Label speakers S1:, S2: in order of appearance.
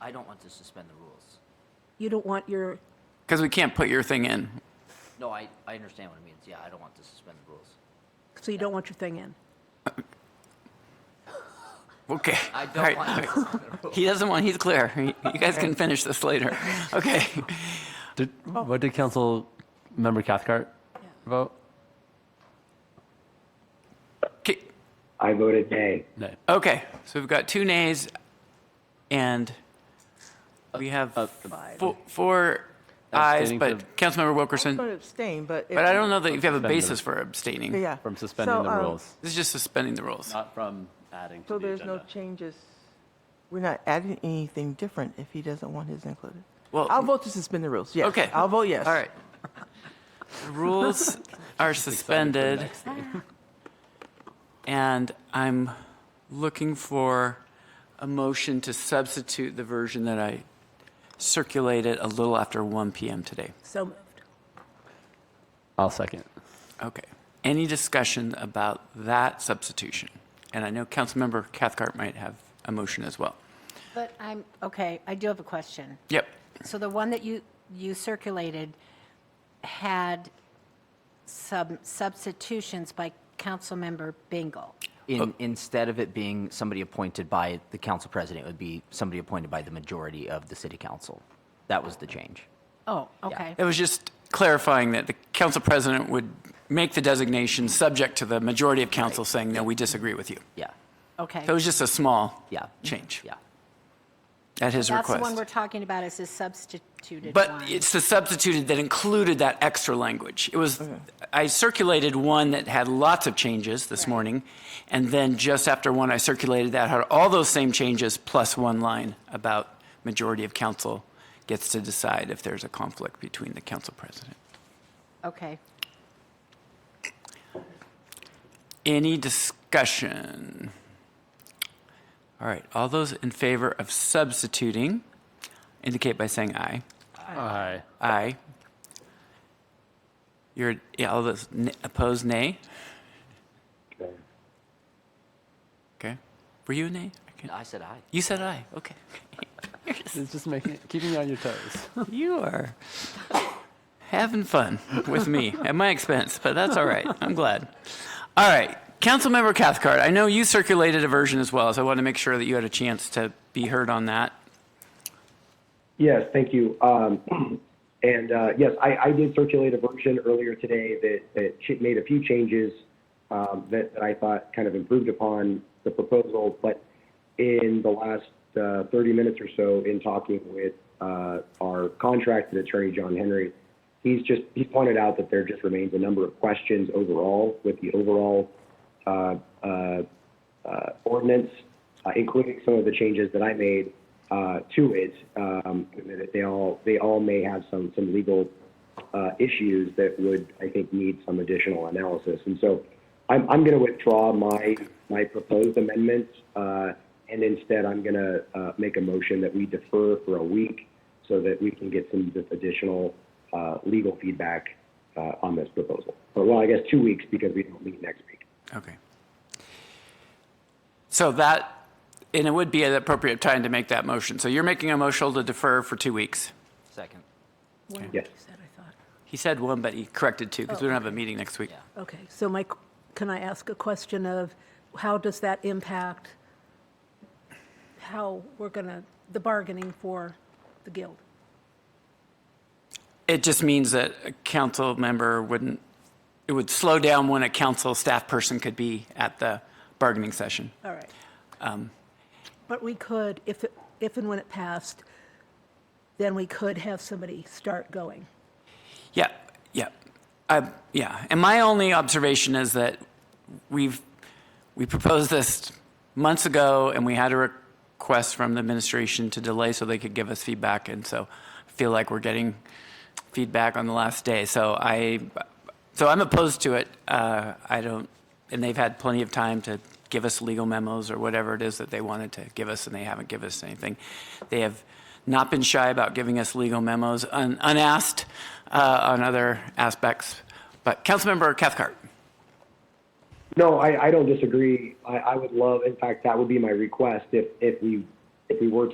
S1: I don't want to suspend the rules.
S2: You don't want your,
S3: Because we can't put your thing in.
S1: No, I, I understand what it means. Yeah, I don't want to suspend the rules.
S2: so you don't want your thing in.
S3: Okay.
S1: I
S3: All
S1: don't
S3: right.
S1: want to suspend the rules.
S3: He doesn't want, he's clear. You guys can finish this later. Okay.
S4: Did, What did Council Member Cathcart vote?
S3: Okay.
S5: I voted nay.
S4: No.
S3: Okay, so we've got two nays and we have fo- four ayes,
S4: Abstaining
S3: but
S4: from-
S3: Councilmember
S6: I'm going
S3: Wilkerson,
S6: to abstain, but.
S3: but I don't know that if you have a
S4: Suspended.
S3: basis for abstaining.
S6: Yeah.
S4: From suspending
S6: So,
S4: the
S6: um,
S4: rules,
S3: This is just suspending the rules.
S4: not from adding
S6: So
S4: to the
S6: there's no
S4: agenda.
S6: changes. We're not adding anything different if he doesn't want his included.
S3: Well,
S6: I'll vote to suspend the rules, yes.
S3: Okay.
S6: I'll vote yes.
S3: All right. The rules are suspended. And I'm looking for a motion to substitute the version that I circulated a little after 1 PM today.
S2: So moved.
S4: I'll second.
S3: Okay. Any discussion about that substitution? And I know Councilmember Cathcart might have a motion as well.
S7: But I'm, okay, I do have a question.
S3: Yep.
S7: So the one that you, you circulated had some substitutions by Councilmember Bingle.
S1: In, instead of it being somebody appointed by the council president, it would be somebody appointed by the majority of the city council. That was the change.
S7: Oh, okay.
S3: It was just clarifying that the council president would make the designation subject to the majority of council saying, no, we disagree with you.
S1: Yeah,
S7: Okay.
S3: So it was just a small
S1: yeah.
S3: change
S1: Yeah.
S3: at his
S7: That's the one we're
S3: request.
S7: talking about is the substituted one.
S3: But it's the substituted that included that extra language. It was,
S1: Mm-hmm.
S3: I circulated one that had lots of changes this morning, and then just after one, I circulated that had all those same changes plus one line about majority of council gets to decide if there's a conflict between the council president.
S7: Okay.
S3: Any discussion? All right, all those in favor of substituting indicate by saying aye.
S4: Aye.
S3: Aye. You're, yeah, all those n- opposed, nay? Okay. Were you a nay? I can't-
S1: I said aye.
S3: You said aye, okay.
S4: It's just making, keeping you on your toes.
S3: You are having fun with me at my expense, but that's all right. I'm glad. All right, Councilmember Cathcart, I know you circulated a version as well, so I want to make sure that you had a chance to be heard on that.
S5: Yes, thank you. Um, and uh, yes, I, I did circulate a version earlier today that, that ch- made a few changes um, that, that I thought kind of improved upon the proposal. But in the last uh, 30 minutes or so, in talking with uh, our contracted attorney, John Henry, he's just he pointed out that there just remains a number of questions overall with the overall uh, uh, uh, ordinance, uh, including some of the changes that I made uh, to it. Um, that they all they all may have some some legal uh, issues that would I think need some additional analysis. And so I'm I'm going to withdraw my my proposed amendments, uh, and instead I'm going to uh, make a motion that we defer for a week so that we can get some additional uh, legal feedback uh, on this proposal. Or well, I guess two weeks because we don't meet next week.
S3: Okay. So that, and it would be an appropriate time to make that motion. So you're making a motion to defer for two weeks.
S1: Second.
S2: One,
S5: Yes.
S2: you said, I thought.
S3: He said one, but he corrected two because we don't have a meeting next week.
S2: Okay, so my, can I ask a question of how does that impact how we're gonna, the bargaining for the guild?
S3: It just means that a council member wouldn't, it would slow down when a council staff person could be at the bargaining session.
S2: All right. But we could, if, it- if and when it passed, then we could have somebody start going.
S3: Yeah, yeah, I, yeah. And my only observation is that we've we proposed this months ago, and we had a request from the administration to delay so they could give us feedback, and so I feel like we're getting feedback on the last day. So I, so I'm opposed to it. Uh, I don't, and they've had plenty of time to give us legal memos or whatever it is that they wanted to give us, and they haven't given us anything. They have not been shy about giving us legal memos un- unasked uh, on other aspects. But Councilmember Cathcart.
S5: No, I, I don't disagree. I, I would love, in fact, that would be my request if, if we, if we were to